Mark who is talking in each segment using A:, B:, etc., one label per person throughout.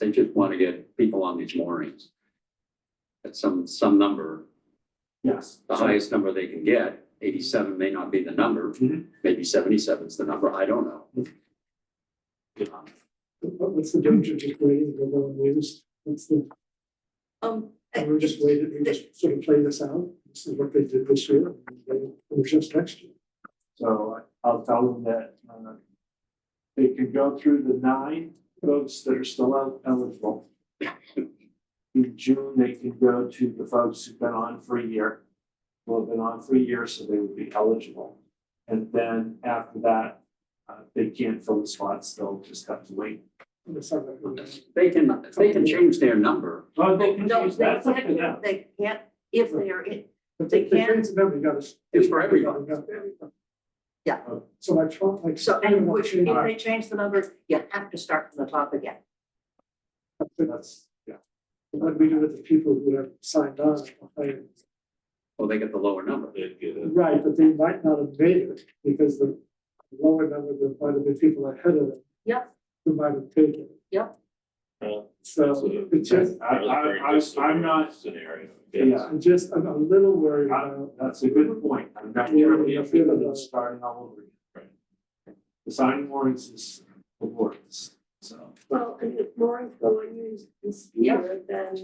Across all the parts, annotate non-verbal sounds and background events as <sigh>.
A: They just want to get people on these moorings. At some, some number,
B: Yes.
A: the highest number they can get, eighty-seven may not be the number,
C: Mm-hmm.
B: Mhm.
A: maybe 77 is the number, I don't know. Um,
C: What- What's the danger of just waiting to go on news? What's the,
D: Um,
C: and we're just waiting, we just sort of play this out. This is what they did this year. and they- We're just next year.
B: So I'll tell them that, uh, they can go through the nine folks that are still el- eligible. In June, they can go to the folks who've been on for a year, who have been on for a year, so they would be eligible. And then after that, uh, they can't fill the slots, they'll just have to wait.
C: And it's not like we're gonna-
A: They can, they can change their number,
B: Oh, they can
D: no,
B: change,
D: they
B: that's up to them.
D: can't, they can't, if they are in,
C: But
D: They
C: the the
D: can-
C: things that we got is.
A: It's for everybody.
C: we got everybody.
D: Yeah.
C: So my twelve, like.
D: so,
C: I don't
D: and
C: know
D: which,
C: what you
D: if
C: are.
D: they change the numbers, you have to start from the top again.
C: That's, yeah. But we do with the people who have signed on. I-
A: or they get the lower number.
C: Right, but they might not have made it because the lower number, there might have been people ahead of them.
D: Yep.
C: Who might have taken it.
D: Yep.
E: Yeah.
C: So it's just,
B: I, I, I, I'm not,
E: Scenario.
B: yeah.
C: I'm just, I'm a little worried
B: I-
C: about.
B: That's a good point. I'm not
C: Yeah,
B: sure
C: yeah,
B: if
C: yeah.
B: it's starting all over again. The sign warrants is the warrants, so.
F: Well, and if more go unused this
D: Yeah.
F: year, then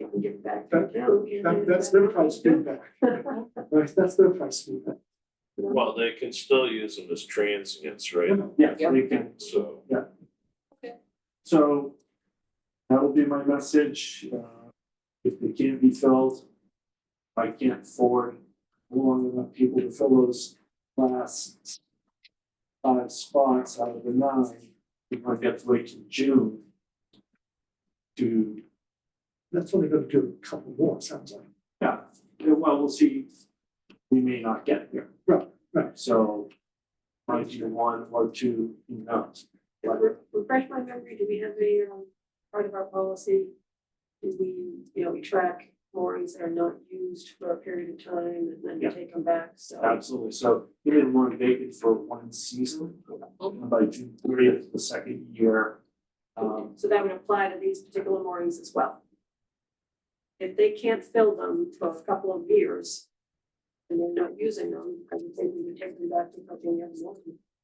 F: it can get back to
C: That-
F: Joe. you know,
C: That, that's their price feedback,
F: Well,
C: right? That's their price feedback.
E: Well, they can still use them as transients, right?
B: Yeah,
D: Yep.
B: they can.
E: So
B: So that'll be my message. Uh, If they can't be filled, if I can't afford long enough people to fill those last five spots out of the nine, we might have to wait till June to
C: That's only gonna do a couple more, sounds like.
B: Yeah, yeah, well, we'll see, we may not get there.
C: Right, right.
B: So, might be one or two, who knows?
F: <laughs> re- Refresh my memory, do we have a, um, part of our policy? Do we, you know, we track moorings that are not used for a period of time and then we
B: Yeah.
F: take them back, so.
B: Absolutely, so we didn't want to vacant for one season, and by June thirtieth, the second year. Um,
F: So that would apply to these particular moorings as well. If they can't fill them for a couple of years and they're not using them, I would say we would take them back to something else.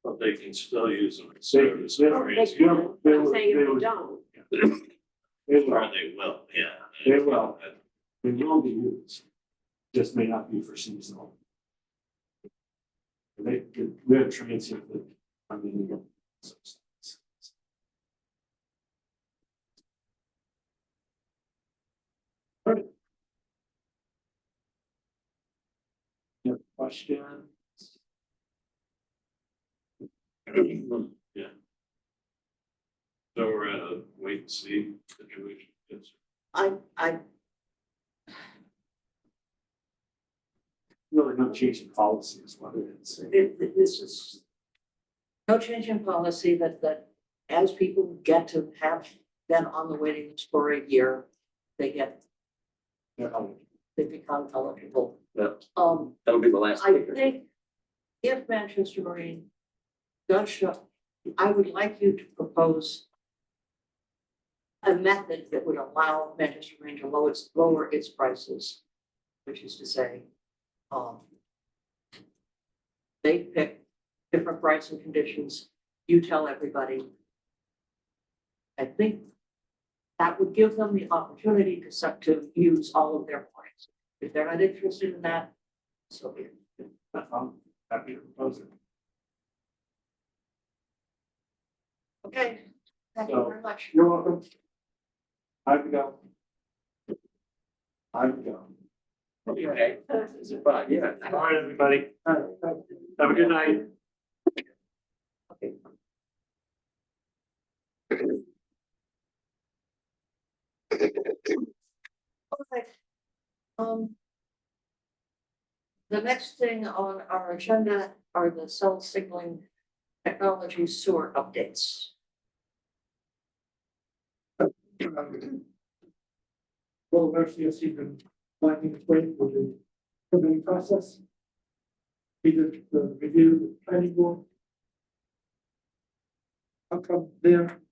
E: but they can still use them as
B: They-
E: service
B: they-
F: They
E: areas.
F: can, but I'm saying
B: They
F: if
B: would-
F: they don't,
B: they
E: Or
B: will,
E: they will, yeah.
B: They will. they will be used, just may not be for seasonal. They, we have transient, that, I mean. so- Any other questions?
E: So we're at a wait and see situation. It's-
D: I, I,
B: Really no change in policy is what it is.
D: thi- thi- this is no change in policy that, that as people get to have been on the waiting list for a year, they get,
B: They're eligible.
D: they become eligible.
A: Yep.
D: Um,
A: That'll be the last
D: I
A: speaker.
D: think if Manchester Marine does show, I would like you to propose a method that would allow Manchester Marine to lower its, lower its prices, which is to say, um, they pick different rights and conditions, you tell everybody. I think that would give them the opportunity to, suck- to use all of their points. If they're not interested in that, so be it.
B: I'm um, happy to propose it.
D: Okay, thank you
B: So-
D: very much.
B: You're welcome. I would go. I would go.
A: Okay, but yeah.
B: All right, everybody. Have a good night.
D: Okay. Um. The next thing on our agenda are the cell signaling technology sewer updates.
C: Well, Mercy has been finding its way through the permitting process. We did the review, with the planning board. How come they're